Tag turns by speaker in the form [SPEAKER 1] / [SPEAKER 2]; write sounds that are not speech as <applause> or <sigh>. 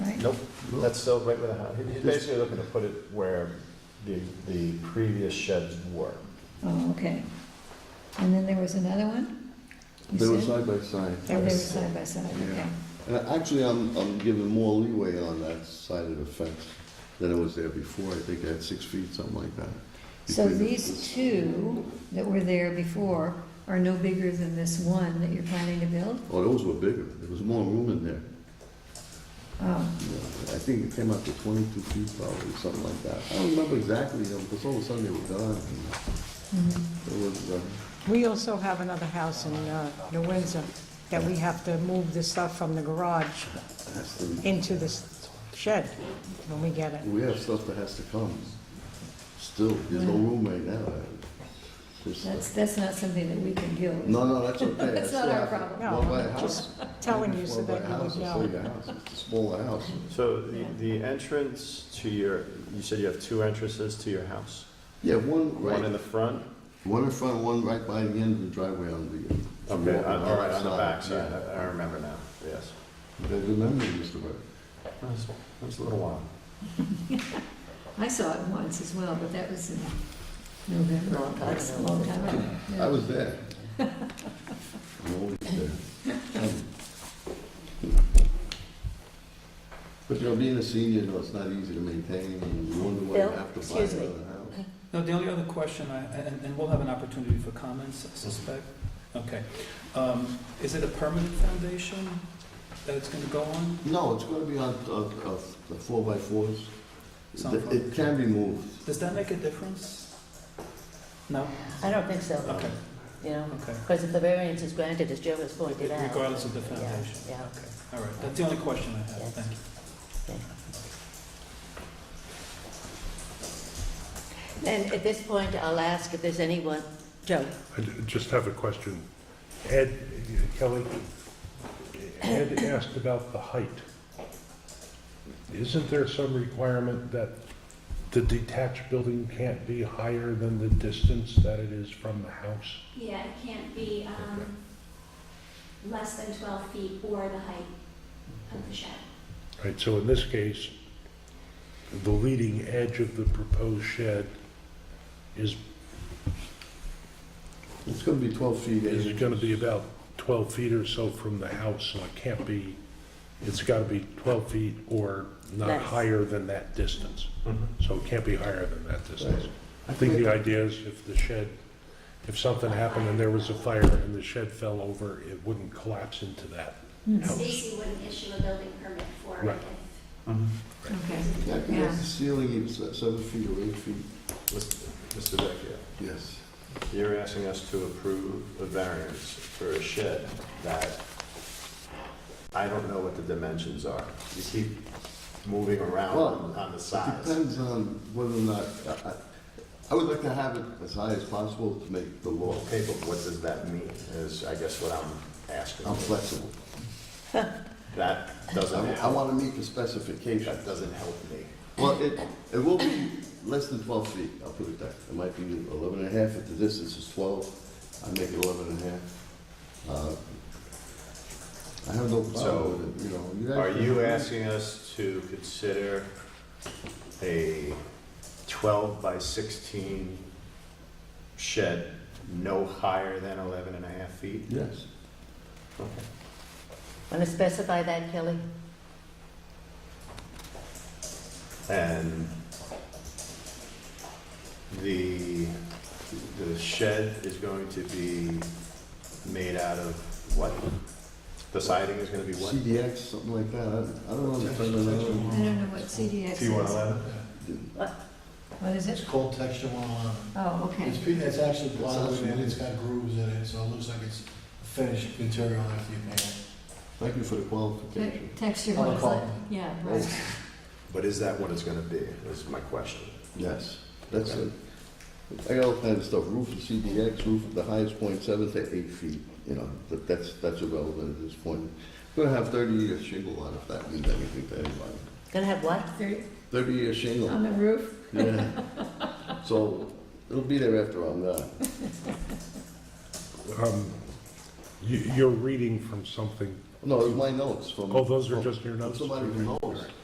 [SPEAKER 1] Nope,
[SPEAKER 2] No.
[SPEAKER 1] that's still right where the house, he's basically looking to put it where the, the previous sheds were.
[SPEAKER 3] Oh, okay. And then there was another one? you
[SPEAKER 2] They were
[SPEAKER 3] said?
[SPEAKER 2] side by side.
[SPEAKER 3] Oh, they were side by side,
[SPEAKER 2] Yeah.
[SPEAKER 3] okay.
[SPEAKER 2] And actually, I'm, I'm giving more leeway on that side of the fence than it was there before. I think I had six feet, something like that.
[SPEAKER 3] So
[SPEAKER 2] between the-
[SPEAKER 3] these two that were there before are no bigger than this one that you're planning to build?
[SPEAKER 2] Oh, those were bigger. There was more room in there.
[SPEAKER 3] Oh,
[SPEAKER 2] Yeah, I think it came up to twenty-two feet probably, something like that. I don't remember exactly, though, because all of a sudden they were gone.
[SPEAKER 3] mhm.
[SPEAKER 2] It was, uh,
[SPEAKER 4] We also have another house in uh, New Windsor that we have to move the stuff from the garage
[SPEAKER 2] has to,
[SPEAKER 4] into this shed when we get it.
[SPEAKER 2] we have stuff that has to come. Still, there's no room right now. Just-
[SPEAKER 3] that's, that's not something that we can deal with.
[SPEAKER 2] No, no, that's
[SPEAKER 3] <laughs>
[SPEAKER 2] okay.
[SPEAKER 3] That's
[SPEAKER 2] I
[SPEAKER 3] not
[SPEAKER 2] still
[SPEAKER 3] our
[SPEAKER 2] have to
[SPEAKER 3] problem.
[SPEAKER 2] go buy a
[SPEAKER 4] No, just
[SPEAKER 2] house.
[SPEAKER 4] telling you
[SPEAKER 2] Go
[SPEAKER 4] so
[SPEAKER 2] buy
[SPEAKER 4] that
[SPEAKER 2] a
[SPEAKER 4] you
[SPEAKER 2] house,
[SPEAKER 4] would
[SPEAKER 2] it's still
[SPEAKER 4] know.
[SPEAKER 2] your house. It's a smaller house.
[SPEAKER 1] So the,
[SPEAKER 3] Yeah.
[SPEAKER 1] the entrance to your, you said you have two entrances to your house?
[SPEAKER 2] Yeah, one
[SPEAKER 1] One in
[SPEAKER 2] right,
[SPEAKER 1] the front?
[SPEAKER 2] one in front, one right by the end of the driveway on the.
[SPEAKER 1] Okay, on- Uh, all right, on the back
[SPEAKER 2] outside,
[SPEAKER 1] side, I I remember now, yes.
[SPEAKER 2] yeah. Good memory, Mr. Burke.
[SPEAKER 1] That's that's a little while.
[SPEAKER 3] I saw it once as well, but that was in November,
[SPEAKER 4] Long time
[SPEAKER 3] that's a
[SPEAKER 4] ago.
[SPEAKER 3] long time ago.
[SPEAKER 2] <clears throat> I
[SPEAKER 3] Yeah.
[SPEAKER 2] was
[SPEAKER 4] <laughs>
[SPEAKER 2] there. I'm always there. But you know, being a senior, you know, it's not easy to maintain, and you wonder why you
[SPEAKER 4] Bill,
[SPEAKER 2] have to buy
[SPEAKER 4] excuse me.
[SPEAKER 2] another house.
[SPEAKER 5] Now, the only other question, I- and and we'll have an opportunity for comments, I suspect. Okay. Um, Is it a permanent foundation that it's going to go on?
[SPEAKER 2] No, it's gonna be on, uh, uh, the four by fours.
[SPEAKER 5] Some
[SPEAKER 2] It- It can be moved.
[SPEAKER 5] Does that make a difference? No?
[SPEAKER 6] I don't think
[SPEAKER 1] Um,
[SPEAKER 6] so,
[SPEAKER 5] Okay,
[SPEAKER 6] you know,
[SPEAKER 5] okay.
[SPEAKER 6] because if the variance is granted, as Joe has pointed out.
[SPEAKER 5] Regardless of the
[SPEAKER 6] yeah,
[SPEAKER 5] foundation?
[SPEAKER 6] yeah.
[SPEAKER 5] Okay, all right. That's the only question I have. Thank you.
[SPEAKER 6] And at this point, I'll ask if there's anyone, Joe,
[SPEAKER 7] I d- just have a question. Ed, Kelly, Ed asked about the height. Isn't there some requirement that the detached building can't be higher than the distance that it is from the house?
[SPEAKER 8] Yeah, it can't be um, less than 12 feet or the height of the shed.
[SPEAKER 7] Right, so in this case, the leading edge of the proposed shed is,
[SPEAKER 2] It's gonna be twelve feet. eight
[SPEAKER 7] is gonna be
[SPEAKER 2] inches.
[SPEAKER 7] about 12 feet or so from the house, so it can't be, it's gotta be 12 feet or not
[SPEAKER 6] Less.
[SPEAKER 7] higher than that distance.
[SPEAKER 1] Mm-hmm.
[SPEAKER 7] So it can't be higher than that distance.
[SPEAKER 2] Right.
[SPEAKER 7] I think the idea is if the shed, if something happened and there was a fire and the shed fell over, it wouldn't collapse into that house.
[SPEAKER 8] Stacy wouldn't issue a building permit for it
[SPEAKER 7] Right.
[SPEAKER 8] if
[SPEAKER 1] Mm-hmm.
[SPEAKER 3] Okay.
[SPEAKER 2] Yeah, I think
[SPEAKER 3] Yeah.
[SPEAKER 2] that's the ceiling, it's uh, seven feet or eight feet.
[SPEAKER 1] Mr. Vecchio,
[SPEAKER 2] Yes.
[SPEAKER 1] you're asking us to approve a variance for a shed that I don't know what the dimensions are. You keep moving around on- on the
[SPEAKER 2] It
[SPEAKER 1] size.
[SPEAKER 2] Depends on whether or not, I- I- I would like to have it as high as possible to make the law.
[SPEAKER 1] Okay, but what does that mean, is I guess what I'm asking.
[SPEAKER 2] I'm flexible.
[SPEAKER 1] That
[SPEAKER 2] I
[SPEAKER 1] doesn't
[SPEAKER 2] I
[SPEAKER 1] help,
[SPEAKER 2] want to meet the specification.
[SPEAKER 1] that doesn't help me.
[SPEAKER 2] Well, it, it will be less than twelve feet, I'll put it that. It might be eleven and a half, if the distance is twelve, I make it eleven and a half. Uh, I have no
[SPEAKER 1] So,
[SPEAKER 2] problem with it, you know. guys
[SPEAKER 1] Are
[SPEAKER 2] can-
[SPEAKER 1] you asking us to consider a 12 by 16 shed no higher than 11 and a half feet?
[SPEAKER 2] Yes.
[SPEAKER 6] want to specify that, Kelly?
[SPEAKER 1] And the, the shed is going to be made out of what? The siding is gonna be what?
[SPEAKER 2] CDX, something like that, I- I don't understand that.
[SPEAKER 3] I don't know what CDX is. What is
[SPEAKER 9] It's
[SPEAKER 3] it?
[SPEAKER 9] cold texture one on
[SPEAKER 3] Oh, okay.
[SPEAKER 9] It's, pe- it's actually
[SPEAKER 2] It's
[SPEAKER 9] plywood
[SPEAKER 2] actually-
[SPEAKER 9] and it's got grooves in it, so it looks like it's finished material after you paint it.
[SPEAKER 2] Thank you for the qualification.
[SPEAKER 3] Te- Texture
[SPEAKER 9] On the
[SPEAKER 3] ones,
[SPEAKER 9] column.
[SPEAKER 3] like- yeah, right.
[SPEAKER 1] But is that what it's gonna be, is my question.
[SPEAKER 2] Yes, that's it. I got all kinds of stuff, roof of CDX, roof at the highest point, seven to eight feet, you know, that, that's, that's irrelevant at this point. We're gonna have thirty-year shingle on if that means anything to anybody.
[SPEAKER 6] Gonna have what?
[SPEAKER 3] They're
[SPEAKER 2] Thirty-year
[SPEAKER 3] On
[SPEAKER 2] shingle,
[SPEAKER 3] the roof?
[SPEAKER 2] yeah. <laughs> So, it'll be there after I'm gone.
[SPEAKER 7] Um, You, you're reading from something,
[SPEAKER 2] No, it's my notes from.
[SPEAKER 7] oh, those are just your notes?
[SPEAKER 2] Somebody who knows.